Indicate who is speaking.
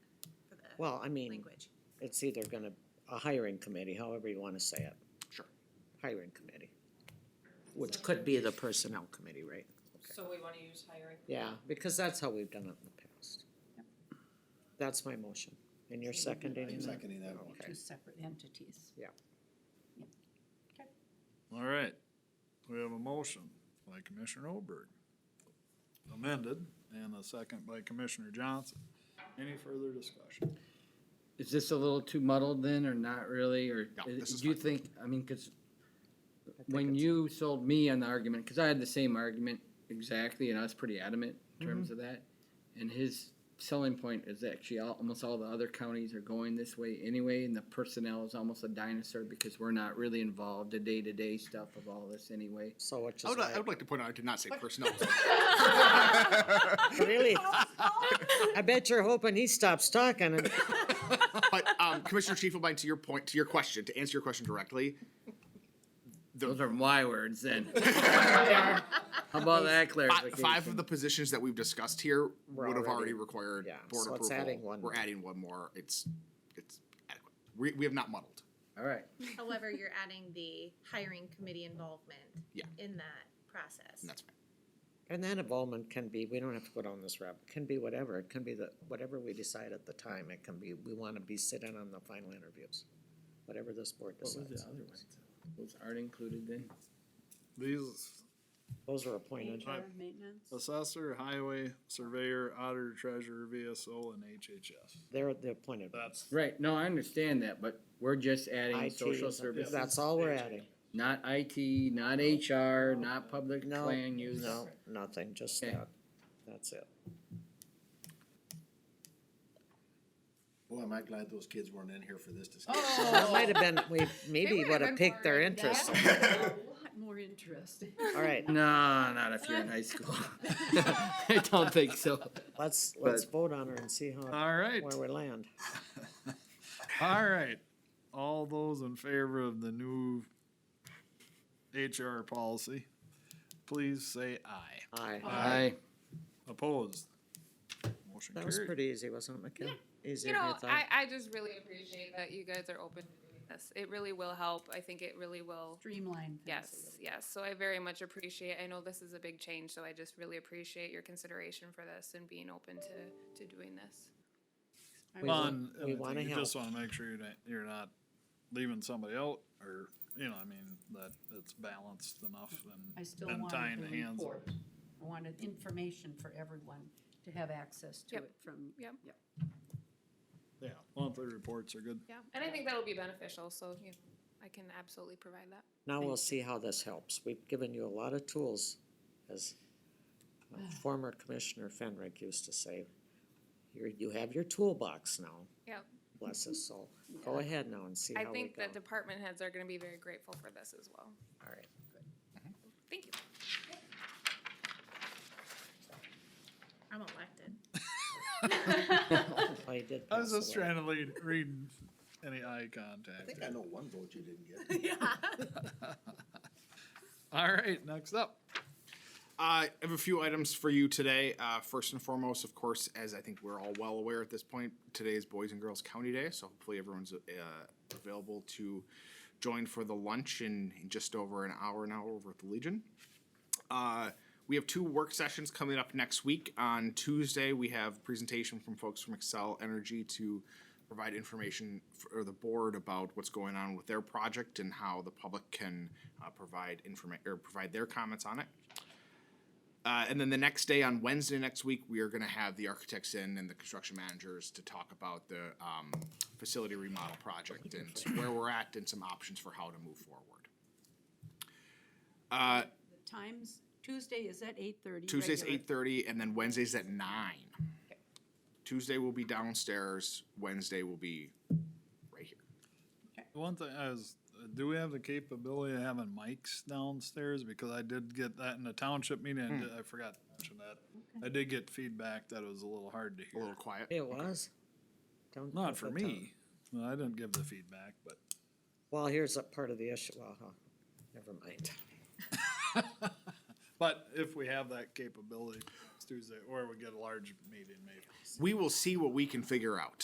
Speaker 1: Well, I mean,
Speaker 2: language.
Speaker 1: it's either gonna, a hiring committee, however you wanna say it,
Speaker 3: Sure.
Speaker 1: hiring committee. Which could be the personnel committee, right?
Speaker 4: So we wanna use hiring?
Speaker 1: Yeah, because that's how we've done it in the past. That's my motion, and you're seconding
Speaker 5: I'm
Speaker 1: that?
Speaker 5: seconding that one.
Speaker 1: Okay,
Speaker 6: two separate entities.
Speaker 3: All right, we have a motion by Commissioner Olberg, amended, and a second by Commissioner Johnson. Any further discussion?
Speaker 7: Is this a little too muddled then, or not really, or
Speaker 3: No,
Speaker 7: is-
Speaker 3: this is
Speaker 7: do you
Speaker 3: fine.
Speaker 7: think, I mean, cause
Speaker 1: I think
Speaker 7: when
Speaker 1: it's-
Speaker 7: you sold me on the argument, cause I had the same argument exactly, and I was pretty adamant in terms of that. And his selling point is actually all, almost all the other counties are going this way anyway, and the personnel is almost a dinosaur because we're not really involved the day-to-day stuff of all this anyway.
Speaker 1: So which
Speaker 3: I
Speaker 2: Oh.
Speaker 1: is
Speaker 3: would, I
Speaker 1: why,
Speaker 3: would like to point out, I did not say personnel.
Speaker 1: really? I bet you're hoping he stops talking and,
Speaker 3: But um, Commissioner Shifelbein, to your point, to your question, to answer your question directly,
Speaker 7: Those are my words then. How about that
Speaker 3: fi-
Speaker 7: clarification?
Speaker 3: five of the positions that we've discussed here
Speaker 1: We're
Speaker 3: would have
Speaker 1: already-
Speaker 3: already required
Speaker 1: yeah,
Speaker 3: board
Speaker 1: so
Speaker 3: approval.
Speaker 1: it's adding one
Speaker 3: We're
Speaker 1: more.
Speaker 3: adding one more. It's, it's adequate. We, we have not muddled.
Speaker 7: All right,
Speaker 2: However, you're adding the hiring committee involvement
Speaker 3: Yeah.
Speaker 2: in that process.
Speaker 3: And that's fine.
Speaker 1: and that involvement can be, we don't have to go down this route, it can be whatever, it can be the, whatever we decide at the time, it can be, we wanna be sitting on the final interviews. Whatever this board
Speaker 7: what was the
Speaker 1: decides,
Speaker 7: other one? Those aren't included then?
Speaker 3: These
Speaker 1: those are appointed.
Speaker 6: HR, maintenance,
Speaker 3: assessor, highway, surveyor, auditor, treasurer, VSO, and HHS.
Speaker 1: They're the appointed. ones.
Speaker 3: That's.
Speaker 7: Right, no, I understand that, but we're just adding
Speaker 1: IT
Speaker 7: social
Speaker 1: is-
Speaker 7: services,
Speaker 1: That's all we're adding.
Speaker 7: not IT, not HR, not public
Speaker 1: No,
Speaker 7: plan use.
Speaker 1: No, nothing, just
Speaker 7: Okay.
Speaker 1: that. That's it.
Speaker 5: Boy, am I glad those kids weren't in here for this discussion.
Speaker 1: That
Speaker 6: Oh,
Speaker 1: might have been, we maybe
Speaker 6: would've
Speaker 1: would have
Speaker 6: been
Speaker 1: picked their
Speaker 6: more
Speaker 1: interest.
Speaker 6: lot more interesting.
Speaker 1: All right,
Speaker 7: No, not if you're in high school. I don't think so.
Speaker 1: let's, let's vote on her and see how,
Speaker 3: All right,
Speaker 1: where we land.
Speaker 3: all right. All those in favor of the new HR policy, please say aye.
Speaker 1: Aye.
Speaker 7: Aye.
Speaker 3: Opposed? Motion
Speaker 1: That was
Speaker 3: carried.
Speaker 1: pretty easy, wasn't it, McKenna?
Speaker 4: You
Speaker 1: Easier than you
Speaker 4: know, I,
Speaker 1: thought.
Speaker 4: I just really appreciate that you guys are open to doing this. It really will help. I think it really will.
Speaker 6: Streamline things. a
Speaker 4: Yes, yes. So I very much appreciate, I know this is a big change, so I just really appreciate your consideration for this and being open to, to doing this.
Speaker 6: little. I
Speaker 1: We
Speaker 6: will-
Speaker 1: want-
Speaker 3: Fun, and I
Speaker 1: we
Speaker 3: think
Speaker 1: wanna
Speaker 3: You just
Speaker 1: help.
Speaker 3: wanna make sure you're not, you're not leaving somebody out, or, you know, I mean, that it's balanced enough
Speaker 6: I
Speaker 3: and,
Speaker 6: still
Speaker 3: and
Speaker 6: wanted
Speaker 3: tying
Speaker 6: the
Speaker 3: hands.
Speaker 6: report. I wanted information for everyone to have access to
Speaker 4: Yep.
Speaker 6: it from.
Speaker 4: Yep.
Speaker 3: Yeah, monthly reports are good.
Speaker 4: Yeah, and I think that'll be beneficial, so, you know, I can absolutely provide that.
Speaker 1: Now we'll see how this helps. We've given you a lot of tools, as uh, former Commissioner Fenrick used to say. You're, you have your toolbox now,
Speaker 4: Yeah,
Speaker 1: bless his soul. Go ahead now and see
Speaker 4: I
Speaker 1: how we
Speaker 4: think
Speaker 1: go.
Speaker 4: the department heads are gonna be very grateful for this as well.
Speaker 1: All right.
Speaker 4: Thank you.
Speaker 2: I'm elected.
Speaker 1: Well, you did
Speaker 3: I was
Speaker 1: pass
Speaker 3: just
Speaker 1: away.
Speaker 3: trying to lead, read any eye
Speaker 5: I
Speaker 3: contact.
Speaker 5: think I know one vote you didn't get.
Speaker 3: All right, next up. Uh, I have a few items for you today. Uh, first and foremost, of course, as I think we're all well aware at this point, today is Boys and Girls County Day, so hopefully everyone's uh, available to join for the lunch in, in just over an hour now over at the Legion. Uh, we have two work sessions coming up next week. On Tuesday, we have a presentation from folks from Excel Energy to provide information for the board about what's going on with their project and how the public can uh, provide information or provide their comments on it. Uh, and then the next day on Wednesday next week, we are going to have the architects in and the construction managers to talk about the um, facility remodel project and where we're at and some options for how to move forward. Uh,
Speaker 6: The Times, Tuesday is at eight thirty.
Speaker 3: Tuesday's eight thirty, and then Wednesday's at nine. Tuesday will be downstairs. Wednesday will be right here.
Speaker 8: One thing I was, do we have the capability of having mics downstairs? Because I did get that in the township meeting, and I forgot to mention that. I did get feedback that it was a little hard to
Speaker 3: A
Speaker 8: hear.
Speaker 3: little quiet.
Speaker 1: It was. Don't
Speaker 8: Not
Speaker 1: put
Speaker 8: for
Speaker 1: that down.
Speaker 8: me. No, I didn't give the feedback, but
Speaker 1: Well, here's a part of the issue, well, huh, never mind.
Speaker 8: but if we have that capability, it's Tuesday, or we get a large meeting maybe.
Speaker 3: We will see what we can figure out.